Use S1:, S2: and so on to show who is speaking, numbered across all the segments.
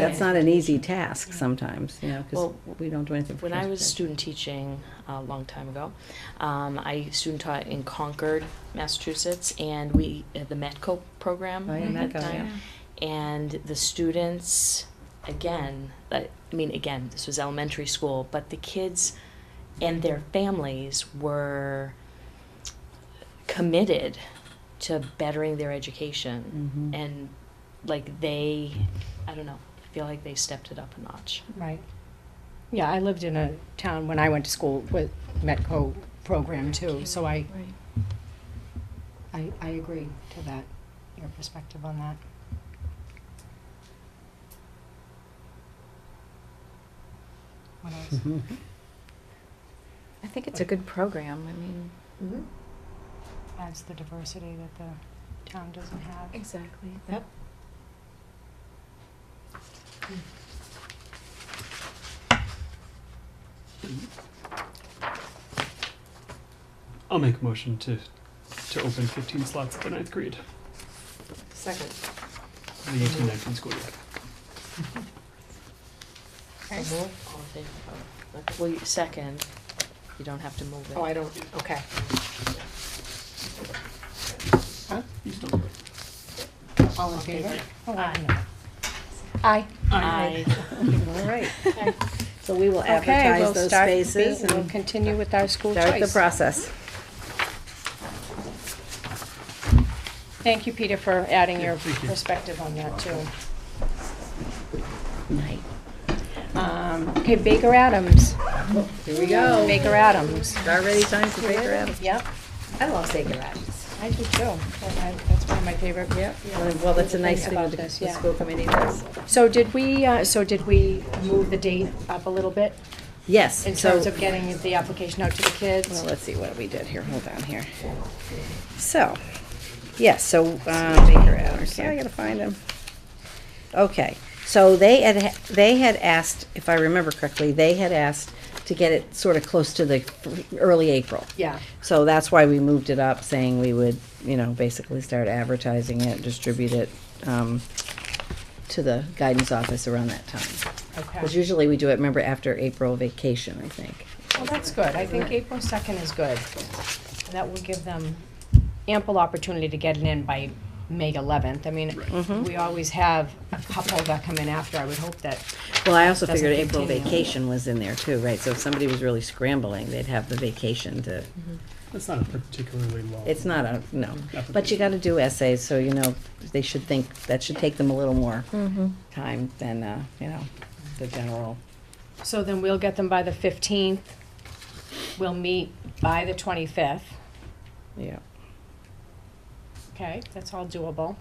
S1: That's not an easy task sometimes, you know, because
S2: Well,
S1: we don't do anything for
S2: When I was
S1: transportation.
S2: student teaching a long time ago, um, I student taught in Concord, Massachusetts, and we had the METCO program
S1: Oh, yeah,
S2: at that
S1: METCO,
S2: time. And the students, again, I I mean, again, this was elementary school, but the kids and their families were committed to bettering their education.
S1: Mhm.
S2: And like they, I don't know, I feel like they stepped it up a notch.
S3: Right. Yeah, I lived in a town when I went to school with Metco program too, so I, I, I agree to that, your perspective on that. What else?
S1: Mhm.
S4: I think it's a good program, I mean.
S3: Adds the diversity that the town doesn't have.
S4: Exactly.
S3: Yep.
S5: I'll make a motion to to open 15 slots at the ninth grade,
S6: Second.
S5: for the 18-19 school year.
S3: Okay.
S2: All in favor? Oh, okay. Well, you- second, you don't have to move it.
S6: Oh, I don't, okay.
S5: You still do it.
S3: All in
S2: Okay.
S3: favor? Oh, I don't know. Aye.
S2: I,
S1: All right. So we will
S3: Okay, we'll
S1: advertise those
S3: start,
S1: spaces
S3: being- we'll
S1: and
S3: continue with our school
S1: start the
S3: choice.
S1: process.
S3: Thank you, Peter, for adding your
S5: Yeah, thank you.
S3: perspective on that too.
S1: Night.
S3: Um, Okay, Baker Adams.
S1: Here we go.
S3: Baker Adams.
S1: Start ready time for Baker Adams.
S3: Yep,
S1: I love Baker Adams.
S3: I do too. That- I- That's one of my favorite.
S1: Yeah, well, that's a nice thing with
S3: About
S1: the
S3: this,
S1: the
S3: yeah.
S1: school committee does.
S3: So did we, uh, so did we move the date up a little bit
S1: Yes,
S3: in
S1: so,
S3: terms of getting the application out to the
S1: well,
S3: kids?
S1: let's see what we did here, hold on here. So, yes, so, uh, Baker Adams, yeah, I gotta find him. Okay, so they had, they had asked, if I remember correctly, they had asked to get it sort of close to the early April.
S3: Yeah,
S1: So that's why we moved it up, saying we would, you know, basically start advertising it, distribute it, um, to the guidance office around that time. Because
S3: okay.
S1: usually we do it, remember, after April vacation, I think.
S3: Well, that's good. I think April 2nd is good. That will give them ample opportunity to get it in by May 11th. I mean,
S1: Mhm.
S3: we always have a couple that come in after. I would hope that
S1: Well, I also
S3: Doesn't
S1: figured April
S3: continue.
S1: vacation was in there too, right? So if somebody was really scrambling, they'd have the vacation to,
S3: Mm-hmm.
S5: That's not a particularly long.
S1: it's not a, no.
S5: application.
S1: But you gotta do essays, so you know, they should think, that should take them a little more
S3: Mm-hmm.
S1: time than, uh, you know, the general.
S3: So then we'll get them by the fifteenth, we'll meet by the twenty-fifth,
S1: Yeah,
S3: okay, that's all doable.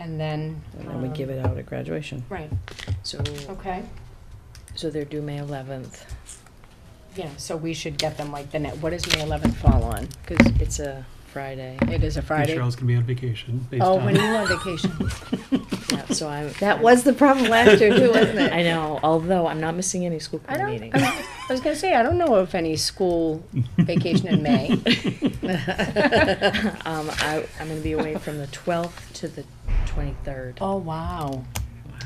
S3: And then. um,
S1: and then we give it out at graduation.
S3: Right,
S2: so,
S3: okay,
S2: so they're due May eleventh.
S3: yeah, so we should get them like the net, what does May eleventh fall on? Cause
S2: It's a Friday.
S3: it is a Friday.
S5: Cheryl's gonna be on vacation. Based
S3: Oh,
S5: on
S3: when are you on vacation?
S2: Yeah, so I'm.
S1: That was the problem last year too, wasn't it?
S2: Um, I know, although I'm not missing any school
S3: I
S2: committee
S3: don't,
S2: meetings.
S3: I was gonna say, I don't know of any school vacation in May.
S2: Um, I, I'm gonna be away from the twelfth to the twenty-third.
S3: Oh, wow.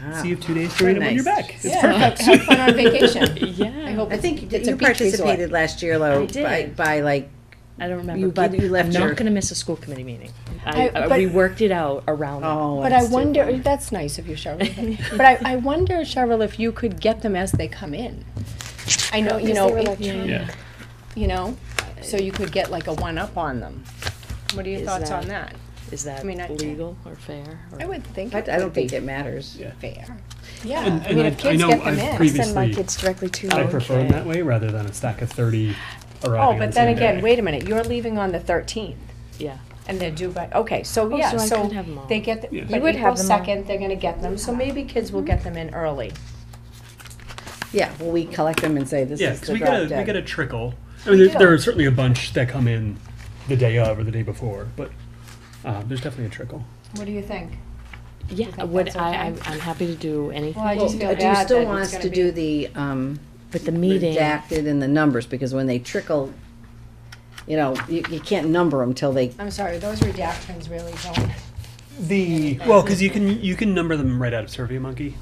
S1: Wow.
S5: See you have two days to
S1: Very
S5: read it when you're
S1: nice.
S5: back.
S3: Yeah, have have fun on vacation. I
S2: Yeah,
S3: hope
S1: I
S3: it's,
S1: think
S3: it's a
S1: you
S3: beach resort.
S1: participated last year, though, by,
S2: I did.
S1: by like,
S2: I don't remember,
S1: You-
S2: but
S1: you left
S2: I'm not
S1: your-
S2: gonna miss a school committee meeting. I,
S3: I-
S2: I-
S3: but-
S2: we worked it out around.
S1: oh.
S3: But I wonder, that's nice of you, Cheryl. But I, I wonder, Cheryl, if you could get them as they come in. I know, you know, it-
S5: Yeah.
S3: you know, so you could get like a one-up on them. What are your
S2: Is
S3: thoughts on
S2: that-
S3: that?
S2: Is that
S3: I mean, I-
S2: legal or fair? or-
S3: I would think
S1: I,
S3: it
S1: I don't
S3: would be
S1: think it matters.
S5: Yeah.
S3: fair. Yeah,
S5: And-
S3: I mean,
S5: and
S3: if
S5: I- I
S3: kids
S5: know
S3: get them
S5: I've
S3: in. Oh,
S5: previously-
S4: Send my kids directly to
S5: I
S4: you.
S5: prefer them that way rather than a stack of 30 arriving
S3: Oh,
S5: on
S3: but then
S5: the same
S3: again,
S5: day.
S3: wait a minute, you're leaving on the thirteenth
S2: Yeah.
S3: and they're due by, okay, so
S2: Oh,
S3: yeah,
S2: so I
S3: so
S2: could have them all.
S3: they get,
S5: Yeah.
S3: the-
S5: You
S3: by
S4: would have
S3: April
S4: them all.
S3: second, they're gonna get them, so maybe kids will get them in early.
S1: Yeah, well, we collect them and say this
S5: Yeah,
S1: is
S5: because
S1: the
S5: we got
S1: drop
S5: a we got
S1: dead.
S5: a trickle. I mean, there,
S3: do.
S5: there are certainly a bunch that come in the day of or the day before, but um, there's definitely a trickle.
S3: What do you think?
S2: Yeah,
S3: think
S2: would
S3: that's
S2: I, I,
S3: okay?
S2: I'm happy to do
S3: Well, I
S2: anything,
S3: just feel
S1: Do you
S3: bad
S1: still
S3: that
S1: want
S3: it's
S1: us
S3: gonna
S1: to
S3: be.
S1: do the, um,
S2: but the meeting,
S1: redacted and the numbers, because when they trickle, you know, you, you can't number them till they,
S3: I'm sorry, those redactions really don't.
S5: The well, because you can you can number them right out of SurveyMonkey,